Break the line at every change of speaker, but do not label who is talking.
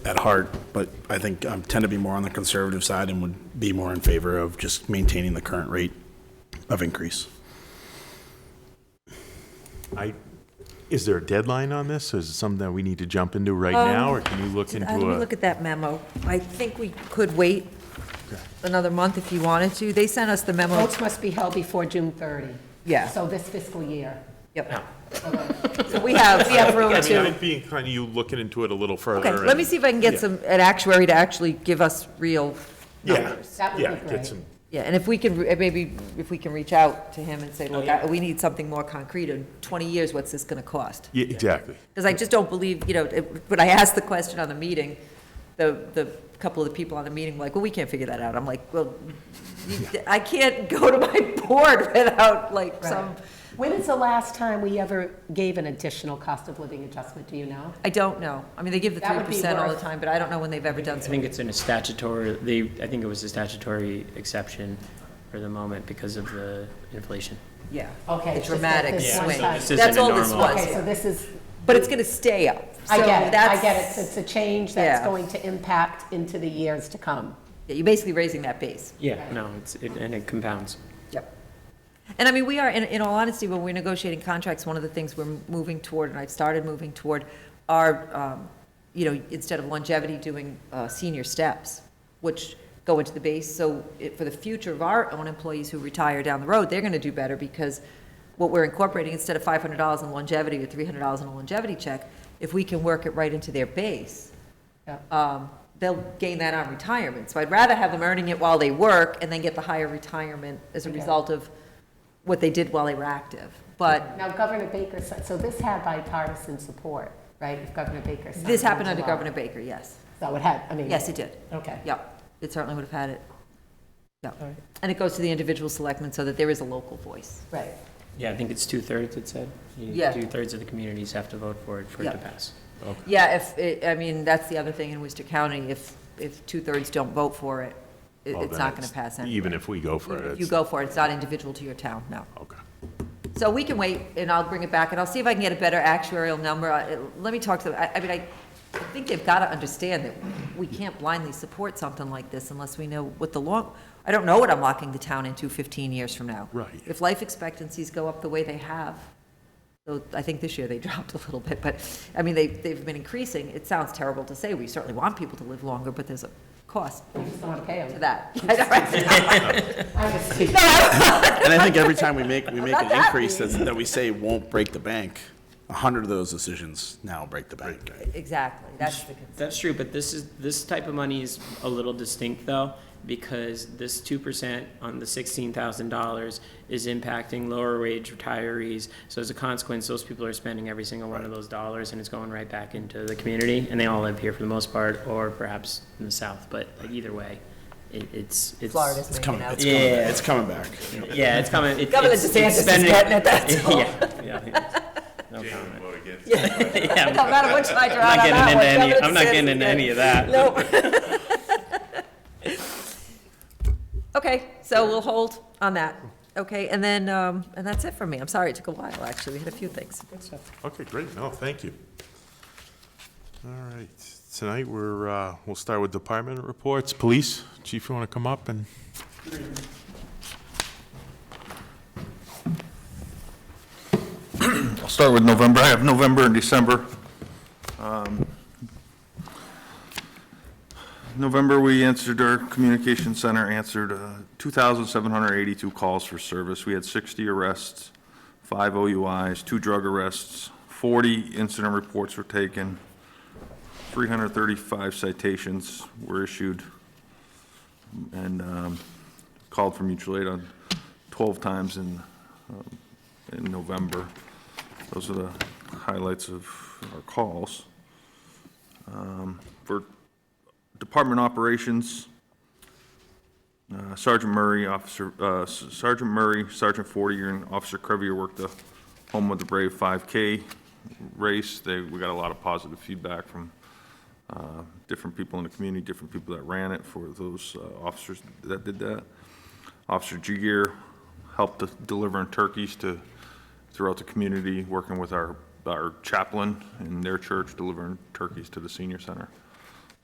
at heart, but I think I tend to be more on the conservative side and would be more in favor of just maintaining the current rate of increase.
I, is there a deadline on this? Is it something that we need to jump into right now, or can you look
Uh, Let
into
me
a?
Um, look at that memo. I think we could wait another month if you wanted to. They sent us the memo.
Votes must be held before June 30.
Yeah.
So this fiscal year.
Yep. So we have, we have room
I mean,
to.
I'd be inclined to you looking into it a little further.
Okay, let
and-
me see if I can get
Yeah.
some, an actuary to actually give us real
Yeah,
numbers.
That would be
yeah, get
great.
some,
Yeah, and if we can, re- maybe if we can reach out to him and say, look, I- we need something more concrete. In 20 years, what's this going to cost?
yeah, exactly.
Because I just don't believe, you know, it- when I asked the question on the meeting, the, the couple of the people on the meeting were like, well, we can't figure that out. I'm like, well, you- I can't go to my board without like some,
When is the last time we ever gave an additional cost of living adjustment, do you know?
I don't know. I mean, they give the
That
three
would be
percent all the
worth-
time, but I don't know when they've ever done
I
something.
think it's in a statutory, they, I think it was a statutory exception for the moment because of the inflation.
Yeah.
Okay,
The
it's just
dramatic
like this
one
swing.
time. This isn't
That's
a
all this
normal-
Okay, so
was.
this is,
But it's going to stay up.
I
So
get it, I
that's-
get it. It's a change that's
Yeah.
going to impact into the years to come.
Yeah, You're basically raising that base.
Yeah, no, it's, it- and it compounds.
Yep. And I mean, we are, in, in all honesty, when we're negotiating contracts, one of the things we're moving toward, and I've started moving toward, are, um, you know, instead of longevity, doing, uh, senior steps, which go into the base, so it, for the future of our own employees who retire down the road, they're gonna do better, because what we're incorporating, instead of five hundred dollars in longevity or three hundred dollars in a longevity check, if we can work it right into their base,
Yeah.
um, they'll gain that on retirement. So I'd rather have them earning it while they work and then get the higher retirement as a
Okay.
result of what they did while they were active. But
Now, Governor Baker, said- so this had bipartisan support, right? If Governor Baker signed
this
it in
happened under
July.
Governor Baker, yes.
So it had, I mean.
Yes, it did.
Okay.
Yep, it certainly would have had it.
All
Yep.
right.
And it goes to the individual selectmen so that there is a local voice.
Right.
Yeah, I think it's two-thirds, it said. You-
Yeah.
Two-thirds of the communities have to vote for it for it
Yeah.
to pass.
Yeah, if, it- I mean, that's the other thing in Worcester County, if, if two-thirds don't vote for it, it-
Well,
it's
then
not going to pass anyway.
Even if we go for
Even
it.
if You
it's-
go for it, it's not individual to your town, no.
Okay.
So we can wait, and I'll bring it back, and I'll see if I can get a better actuarial number. I- Let me talk to, I, I mean, I I think they've got to understand that we can't blindly support something like this unless we know what the long, I don't know what I'm locking the town into 15 years from now.
Right.
If life expectancies go up the way they have, so I think this year they dropped a little bit, but, I mean, they, they've been increasing. It sounds terrible to say, we certainly want people to live longer, but there's a cost
We just don't want to pay
to
them.
that. I know, right?
I'm just kidding.
And I think every time we make, we make
Not
an
that
increase that's, that we say won't break the bank, a hundred of those decisions now break the bank.
Exactly, that's the concern.
That's true, but this is, this type of money is a little distinct though, because this two percent on the sixteen thousand dollars is impacting lower wage retirees. So as a consequence, those people are spending every single one of those dollars and it's going right back into the community. And they all live here for the most part, or perhaps in the south, but either way, it, it's, it's.
Florida's
It's
making
coming,
out.
it's coming,
Yeah.
it's coming back.
Yeah, it's coming. It-
Governor
it's- it's
DeSantis is
spending-
getting it, that's all.
Yeah, yeah. No comment.
No matter what side you're on
I'm not
on
getting
that one,
into any,
Governor
I'm not
DeSantis
getting
is
into
good.
any of that.
Nope. Okay, so we'll hold on that. Okay, and then, um, and that's it for me. I'm sorry, it took a while, actually. We had a few things.
Okay, great, no, thank you. All right, tonight we're, uh, we'll start with department reports. Police, chief, you want to come up and?
I'll start with November. I have November and December. Um, November, we answered, our communication center answered uh, 2,782 calls for service. We had 60 arrests, five OUIs, two drug arrests, 40 incident reports were taken, 335 citations were issued, and um, called for mutual aid on 12 times in, um, in November. Those are the highlights of our calls. Um, For Department Operations, uh, Sergeant Murray, Officer, uh, Sergeant Murray, Sergeant Fortier, and Officer Crevier worked the Home of the Brave 5K race. They, we got a lot of positive feedback from uh, different people in the community, different people that ran it, for those uh, officers that did that. Officer Jiguer helped to- delivering turkeys to, throughout the community, working with our, our chaplain in their church, delivering turkeys to the senior center.